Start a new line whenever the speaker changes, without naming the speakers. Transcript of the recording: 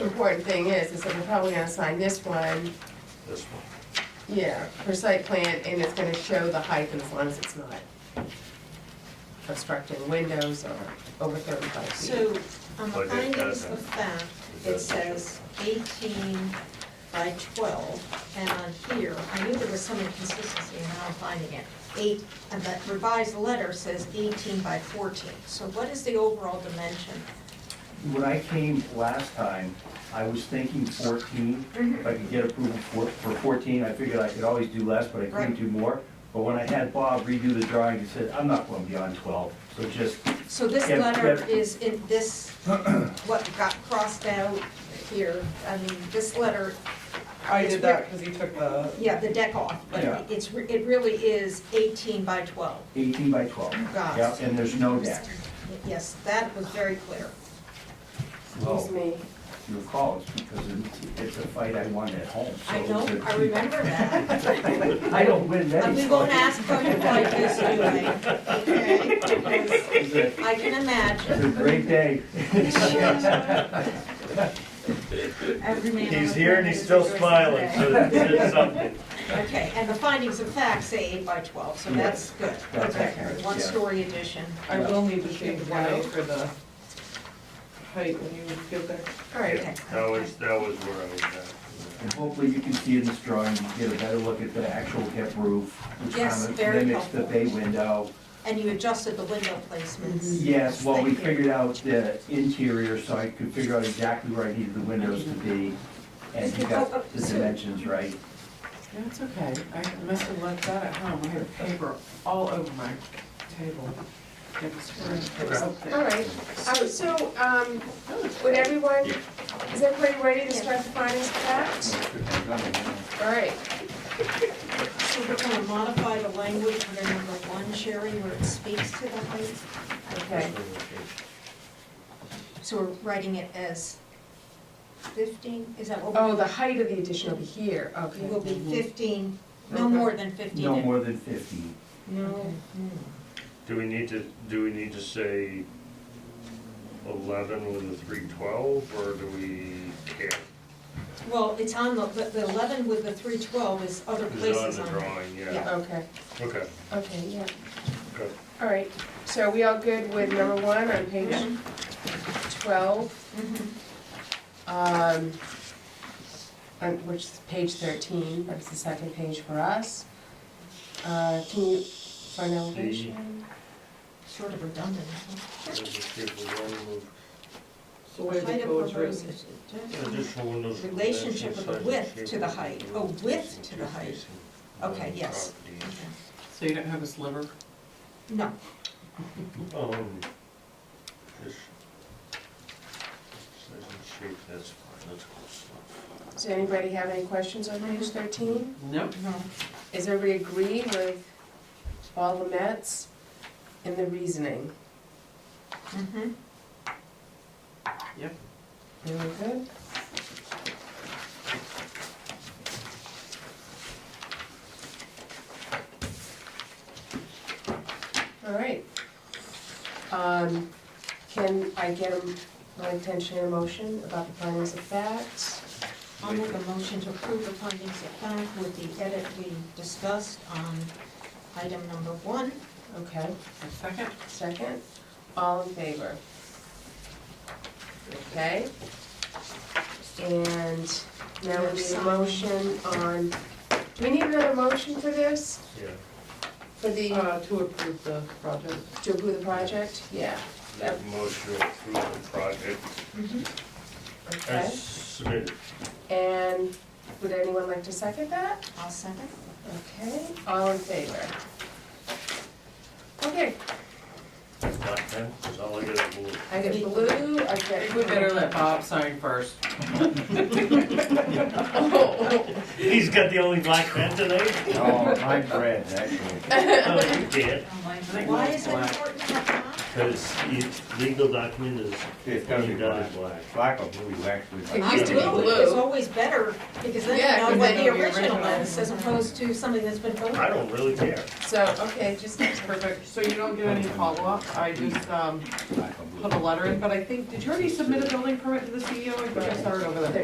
important thing is, is that we're probably gonna sign this one,
this one.
yeah, for site plan, and it's gonna show the height as long as it's not obstructing windows or over thirty-five feet.
So on the
But it
findings
doesn't.
of fact,
It
it
doesn't.
says eighteen by twelve, and on here, I knew there was some inconsistency, and now I'm finding it. Eight, and the revised letter says eighteen by fourteen, so what is the overall dimension?
When I came last time, I was thinking fourteen. If I could get approval for, for fourteen, I figured I could always do less, but I couldn't
Right.
do more. But when I had Bob redo the drawing, he said, I'm not going beyond twelve, so just,
So this
Yeah,
letter
yeah.
is in this, what got crossed out here, I mean, this letter.
I
is
did that because he took the,
re- Yeah, the deck off,
Yeah.
but it's, re- it really is eighteen by twelve.
eighteen by twelve.
Got it.
Yep, and there's no deck.
Yes, that was very clear.
Well,
Excuse me,
Your call is because it's- it's a fight I won at home, so.
I know,
it's a-
I remember that.
I don't win many.
And we won't
fights.
ask how you like this anyway, okay?
It's a-
I can
It's a
imagine.
great day.
He's here and he's still smiling, so it did something.
Okay, and the findings of fact say eight by twelve, so that's good.
That's
Okay,
accurate, yeah.
one-story addition.
I will need to change one eight for the height when you get there.
All right, okay.
That was, that was where I was at.
And hopefully you can see in this drawing, you get a better look at the actual hip roof, which
Yes,
kind of
very
mimics the
helpful.
bay window.
And you adjusted the window placements.
Yes, well, we
Thank you.
figured out the interior, so I could figure out exactly where I needed the windows to be, and you
Oh,
got the dimensions right.
That's okay, I must have left that at home, I had paper all over my table. It was it was up there.
all right, um, so, um, would everyone, is everybody ready to start the findings of fact? All right,
So we're gonna modify the language under number one, Sherry, where it speaks to the height.
okay.
So we're writing it as fifteen, is that what? we're
Oh, the height of the addition will be here, okay.
It will be fifteen, no more than fifteen.
No more than fifteen.
No.
Do we need to, do we need to say eleven with a three twelve, or do we care?
Well, it's on the, the the eleven with the three twelve is other
It's on
places
the
on there.
drawing, yeah.
Yeah.
Okay,
Okay,
okay, yeah.
okay.
All right, so are we all good with number one on page twelve,
Mhm.
um, on which is page thirteen, that's the second page for us. Uh, can you, for an elevation?
Sort of redundant.
Let's just give the one with
It's the way
Height
the
of
code's
proposed-
written.
Additional windows.
Relationship of the width to the height. Oh, width to the height. Okay, yes.
Property.
So you don't have a sliver?
No,
Um, just. Size and shape, that's fine, that's close enough.
Does anybody have any questions on page thirteen?
Nope.
no.
Is everybody agree with all the Mets and the reasoning?
Mhm.
Yep.
Are we good? All right. Um, Can I get a- my attention and motion about the findings of fact?
I'll make a motion to approve the findings of fact with the edit we discussed on item number one.
Okay,
A second?
second. All in favor? Okay. And now we need a motion on, do we need another motion for this?
Yeah,
For the
Uh, to approve the project.
To approve the project? Yeah.
make a motion to approve the project
Okay.
as submitted.
And would anyone like to second that?
I'll second.
Okay, all in favor? Okay,
Not ten, that's all I got to move.
I get blue, I
I
get.
think we better let Bob sign first.
Oh,
He's got the only black pen tonight?
Oh, my bread, actually.
No, you can't,
Why is it important to have that?
because each legal document is,
It's
all
gonna
you
be
got is
black.
black.
Black or blue, actually.
It used to be
Well,
blue.
It's always better, because then
Yeah,
you know
'cause
what
then
the
it'll be
original
original.
is, as opposed to something that's been voted.
I don't really care.
So, okay, just,
Perfect, so you don't get any follow-up, I just, um,
Black or blue.
put a letter in, but E I think, did you already submit a building permit to the CEO? I think I saw it over there.